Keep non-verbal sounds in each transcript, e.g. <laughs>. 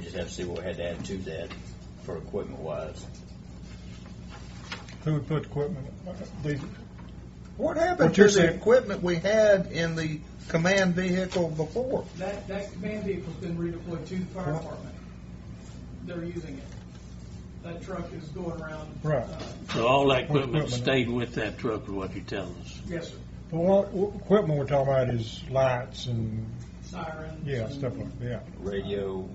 just have to see what we had to add to that for equipment wise. Who would put equipment, these, What What happened you're to the saying- equipment we had in the command vehicle before? That, that command vehicle's been redeployed to the fire department. They're using it. That truck is going around. Right. uh, So all that What equipment equipment? stayed with that truck, is what you're telling us. Yes, sir. but what, what equipment we're talking about is lights and, Sirens. yeah, and- stuff like, that. Radio,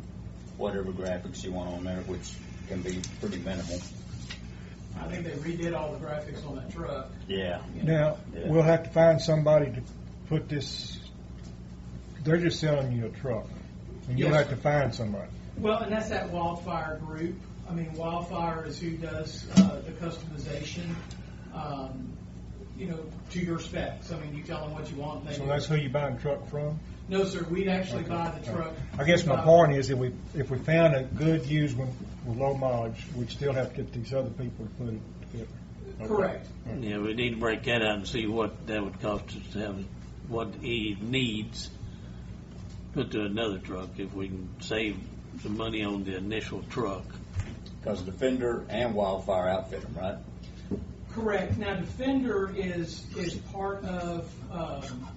whatever graphics you want on there, which can be pretty minimal. I think they redid all the graphics on that truck. Yeah. Now, Yeah. we'll have to find somebody to put this, they're just selling you a truck, and you'll Yes. have to find somebody. Well, and that's that wildfire group. I mean, wildfire is who does uh, the customization, um, you know, to your specs. I mean, you tell them what you want. They So do. that's who you buying the truck from? No, sir, we'd actually buy the truck. I guess my Uh, point is, if we, if we found a good used one with low mileage, we'd still have to get these other people to put it together. Correct. Yeah, we need to break that out and see what that would cost us to have, what he needs put to another truck, if we can save some money on the initial truck. Because Defender and Wildfire outfit them, right? Correct. Now, Defender is, is part of um,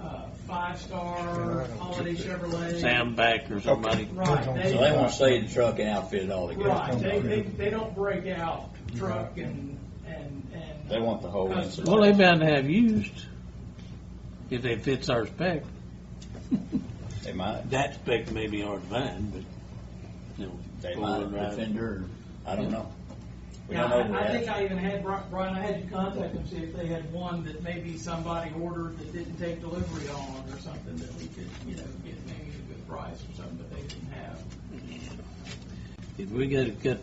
uh, Five Star, Holiday Chevrolet. Sam Back or somebody. Right. So So they won't stay in the truck and outfit it all together. Right, they, they, they don't break out truck and, and, and. They want the whole incident. Well, they bound to have used, if they fits our spec. They might. That spec may be hard to find, but, you know. They might four-wheel have drive. Defender. I don't know. We Now, don't know. I I We think have- I even had, Bri- Brian, I had you contact them, see if they had one that maybe somebody ordered that didn't take delivery on or something that we could, you know, get maybe a good price or something, but they didn't have. If we gotta cut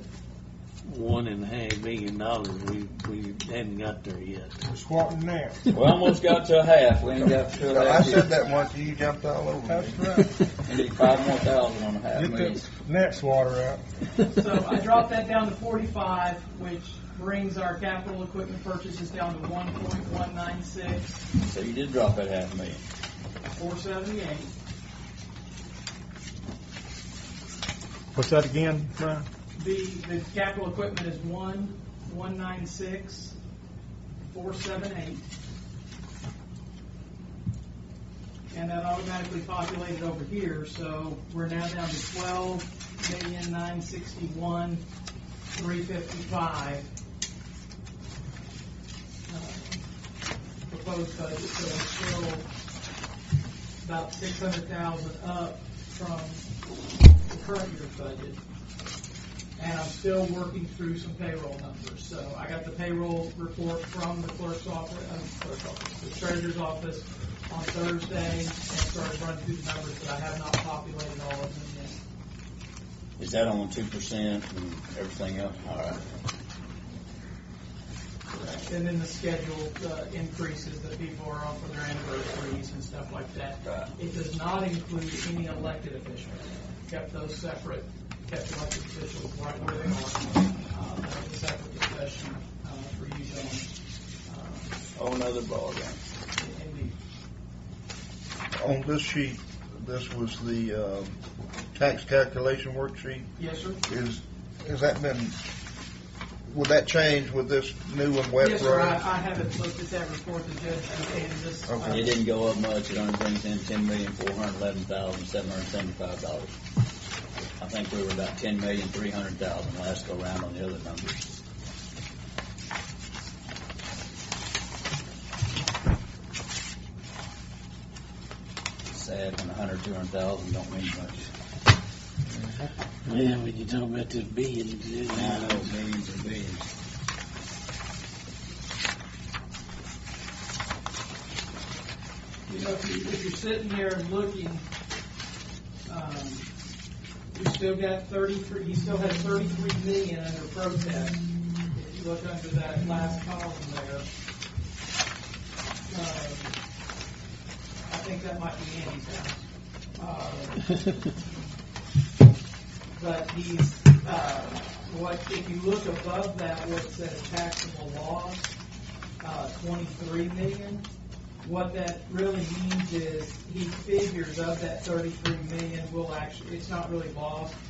one and a half million dollars, we, we hadn't got there yet. We're squatting now. We almost got to a half. We ain't got to a I half said yet. that once, and you jumped all over That's me. right. We need five more thousand on a half. Get million. the next water out. <laughs> So I dropped that down to forty-five, which brings our capital equipment purchases down to one point one nine six, So you did drop that half million. four seventy-eight. What's that again, Brian? The, the capital equipment is one, one nine six, four seven eight. And that automatically populated over here, so we're now down to twelve million nine sixty-one, three fifty-five. Uh, Proposed budget, so it's still about six hundred thousand up from the current year's budget and I'm still working through some payroll numbers. So I got the payroll report from the clerk's office, uh, clerk's office, the treasurer's office on Thursday, and started running through the numbers, but I have not populated all of them yet. Is that on two percent and everything else? All right. And then the scheduled uh, increases that people are on for their anniversaries and stuff like that. Right. It does not include any elected officials. Kept those separate, kept elected officials right where they are. Uh, That was a separate discussion uh, for you, gentlemen. Uh, Oh, another ballgame. Indeed. On this sheet, this was the, uh, tax calculation worksheet. Yes, sir? Is, has that been, would that change with this new and web Yes, sir, I, I haven't looked at that report the judge uh, prepared this. Okay. It didn't go up much. It only brings in ten million four hundred eleven thousand seven hundred seventy-five dollars. I think we were about ten million three hundred thousand last go round on the other numbers. Sad when a hundred, two hundred thousand don't mean much. Yeah, when you talk about this being, I know, millions and billions. You know, if you, if you're sitting there and looking, um, you still got thirty-three, he still has thirty-three million under protest. If you look under that last column there. um, I think that might be Andy's house. Uh, <laughs> But he's, uh, what, if you look above that, what it says taxable loss, uh, twenty-three million. What that really means is, he figures of that thirty-three million will actually, it's not really lost,